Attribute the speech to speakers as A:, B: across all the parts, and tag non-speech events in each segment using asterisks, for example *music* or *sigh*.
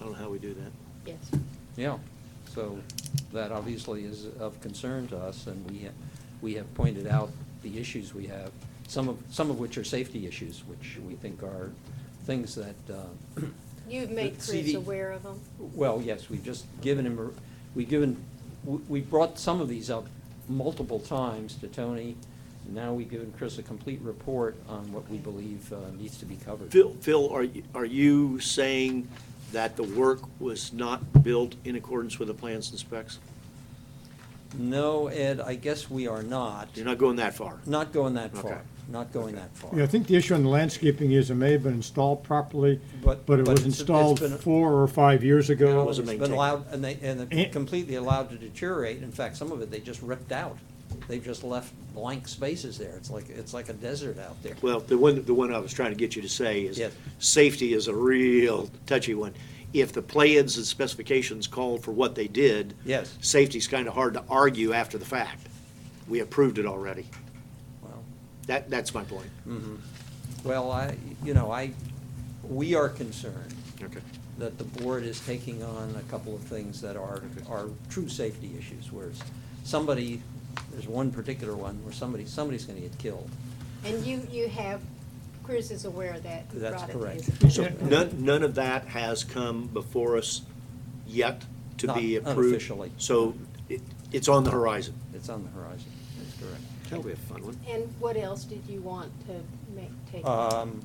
A: I don't know how we do that.
B: Yes.
C: Yeah, so that obviously is of concern to us, and we, ha- we have pointed out the issues we have, some of, some of which are safety issues, which we think are things that.
B: *clears throat*
C: uh,
B: You've made
C: that
B: Chris
C: CD
B: aware of them?
C: Well, yes, we've just given him, a- we've given, we- we brought some of these up multiple times to Tony, and now we've given Chris a complete report on what we believe uh, needs to be covered.
A: Phil, Phil, are, you- are you saying that the work was not built in accordance with the plans and specs?
C: No, Ed, I guess we are not,
A: You're not going that far?
C: not going that
A: Okay.
C: far, not going that far.
D: Yeah, I think the issue on the landscaping is it may have been installed properly,
C: But-
D: but it
C: but
D: was
C: it's- it's
D: installed
C: been-
D: four or five years
A: No,
D: ago.
A: it wasn't
C: It's been
A: maintained.
C: allowed, and they, and they're
D: Eh.
C: completely allowed to deteriorate. In fact, some of it, they just ripped out. They've just left blank spaces there. It's like, it's like a desert out there.
A: Well, the one, the one I was trying to get you to say is,
C: Yes.
A: safety is a real touchy one. If the plans and specifications called for what they did.
C: Yes.
A: Safety's kind of hard to argue after the fact. We approved it already.
C: Well, mm-hmm.
A: That, that's my point.
C: Hmm. Well, I, you know, I, we are concerned
A: Okay.
C: that the board is taking on a couple of things that are,
A: Okay.
C: are true safety issues, where it's- somebody, there's one particular one where somebody, somebody's gonna get killed.
B: And you, you have, Chris is aware of that. You
C: That's
B: brought it to
C: correct.
B: his
A: So
B: attention.
A: none, none of that has come before us yet to be
C: Not
A: approved?
C: unofficially.
A: So it, it's on the horizon.
C: It's on the horizon, that's correct.
A: That'll be a fun one.
B: And what else did you want to make, take?
C: Um,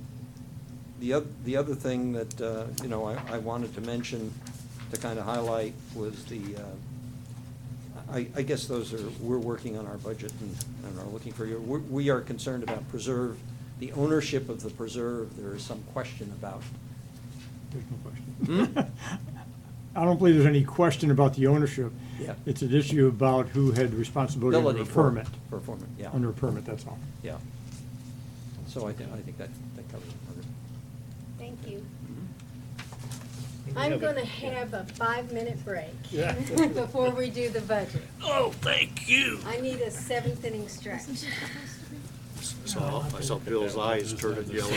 C: The oth- the other thing that, uh, you know, I I wanted to mention, to kind of highlight, was the, uh, I I guess those are, we're working on our budget and and are looking for your, we- we are concerned about preserve, the ownership of the preserve, there is some question about.
D: There's no question. *laughs* I don't believe there's any question about the ownership.
C: Hmm? Yeah.
D: It's an issue about who had responsibility under a
C: ability for-
D: permit,
C: For permit, yeah.
D: under a permit, that's all.
C: Yeah. So I think, I think that that covers it.
B: Thank you.
A: Mm-hmm.
B: I'm going to have a five-minute break *laughs* before we do the budget. Oh, thank you. I need *laughs* a seventh inning stretch.
A: Saw, I saw Bill's eyes turn yellow.